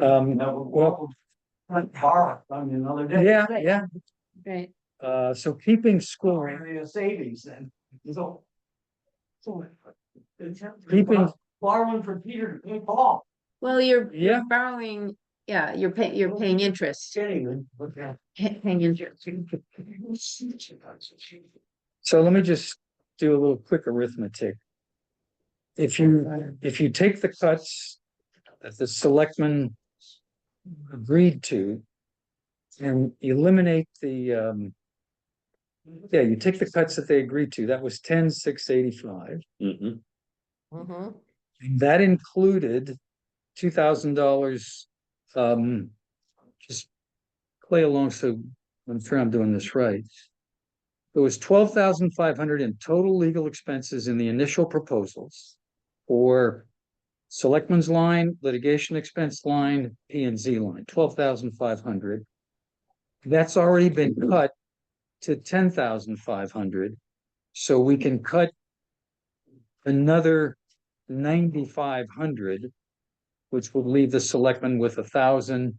Um, Now, well- Front bar, I mean, another day. yeah, Right. yeah, Right, uh, so keeping score, Area savings then, so. So. it's- Keeping- Borrowing from Peter to pay Paul. well, you're yeah, Mm-hmm. borrowing, yeah, you're paying, you're paying interest, Anyway, but yeah. pay- paying interest. so let me just do a little quick arithmetic. If you, if you take the cuts that the selectmen agreed to. And eliminate the, um, yeah, you take the cuts that they agreed to, that was ten, six eighty-five. Mhm. Mm-hmm. That included two thousand dollars, um, just play along, so I'm sure I'm doing this right. There was twelve thousand five hundred in total legal expenses in the initial proposals for selectmen's line, litigation expense line, P and Z line, twelve thousand five hundred. That's already been cut to ten thousand five hundred, so we can cut another ninety-five hundred, which would leave the selectmen with a thousand,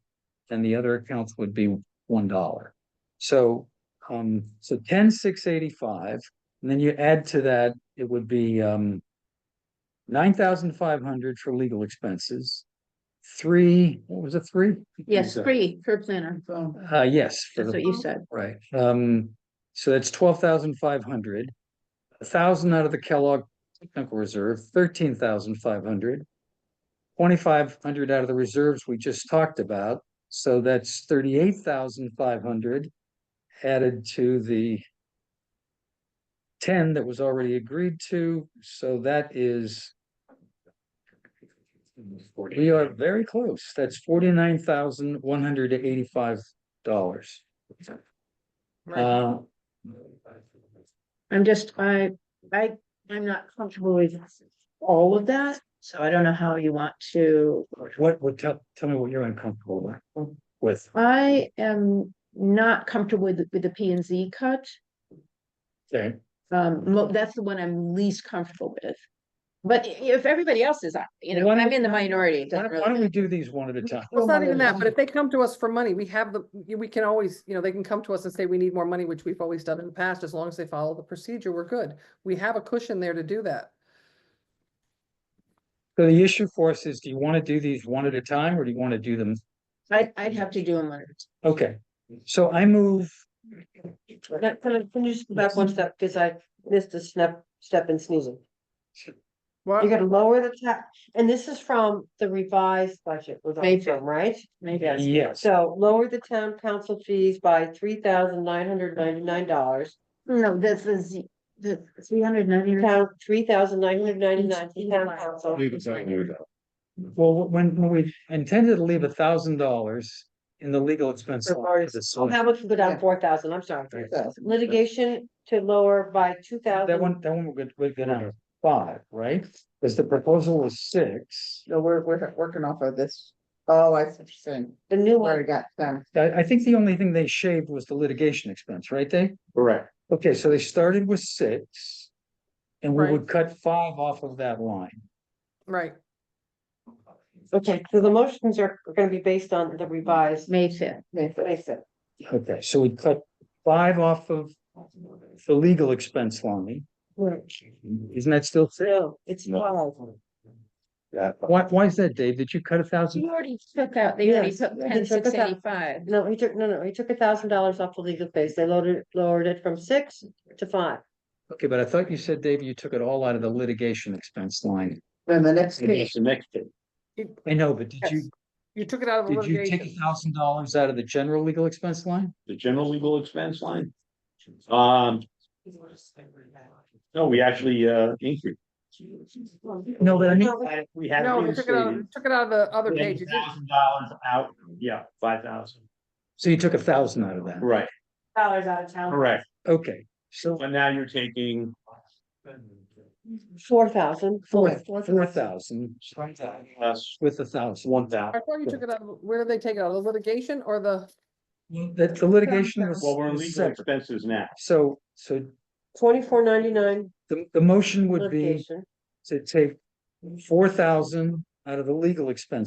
and the other accounts would be one dollar. So, um, so ten, six eighty-five, and then you add to that, it would be, um, nine thousand five hundred for legal expenses, three, what was it, three? Yes, free per planner, Uh, yes. for that's the- what you said, Right, um, so that's twelve thousand five hundred, a thousand out of the Kellogg Technical Reserve, thirteen thousand five hundred. Twenty-five hundred out of the reserves we just talked about, so that's thirty-eight thousand five hundred added to the ten that was already agreed to, so that is, we are very close, that's forty-nine thousand one hundred eighty-five dollars. Uh, I'm just, I, I, I'm not comfortable with all of that, so I don't know how you want to. what, what, tell, tell me what you're uncomfortable with, with, I am not comfortable with, with the P and Z cut, okay, um, mo- that's the one I'm least comfortable with. But i- if everybody else is, uh, you know, Why don't- I'm in the minority, it why doesn't don't, why really, don't we do these one at a time? Well, It's not even that, but if they come to us for money, we have the, we can always, you know, they can come to us and say, we need more money, which we've always done in the past, as long as they follow the procedure, we're good. We have a cushion there to do that. So the issue for us is, do you wanna do these one at a time, or do you wanna do them, I'd, I'd have to do them. later. okay, so I move, Can can I, can you just go back one step, because I missed a step, step in sneezing. You're Well, gonna lower the tax, and this is from the revised budget, was May on from, right? Maybe I- yes, So lower the town council fees by three thousand nine hundred ninety-nine dollars. No, that's the Z, the three hundred ninety. Town, three thousand nine hundred ninety-nine to town council. Leave it saying here we go. well, when, when we intended to leave a thousand dollars in the legal expense. For line lawyers. for the select- That much would go down four thousand, I'm sorry. Litigation to lower by two thousand. That one, that one we're good, we're good on five, right, cause the proposal was six, No, we're, we're working off of this. Oh, I see what you're saying. The new Where one, we got them. I, I think the only thing they shaved was the litigation expense, right, Dave? Correct. Okay, so they started with six. And we Right. would cut five off of that line. right, okay, so the motions are are gonna be based on the revised. May fifth, Mason. Okay, so we cut five off of the legal expense line. Isn't that still six? No, it's No. twelve. Yeah. Why, why is that, Dave? Did you cut a thousand? you already took out, they already Yes, took they ten took six it out. eighty-five. No, he took, no, no, he took a thousand dollars off the legal fees. They loaded, lowered it from six to five. Okay, but I thought you said, Dave, you took it all out of the litigation expense line. Then the next It's page, the next thing. I know, but did you, Yes. you took it out of the did you take a litigation. thousand dollars out of the general legal expense line? the general legal expense line. Um, no, we actually, uh, increased. No, but I mean, We had No, you took it out, you reinstated. took it out of the other page. You didn't- Thousand dollars out, yeah, five thousand. so you took a thousand out of that. Right, Dollars out of town. correct. Okay, so But now you're taking, Four thousand. four, four thousand that's with a thousand. one I thousand. thought you took it out, of- where did they take it out? The litigation or the, That the litigation was. Well, we're in was legal separate. expenses now. So, so Twenty-four ninety-nine the, the motion would be litigation. to take four thousand out of the legal expense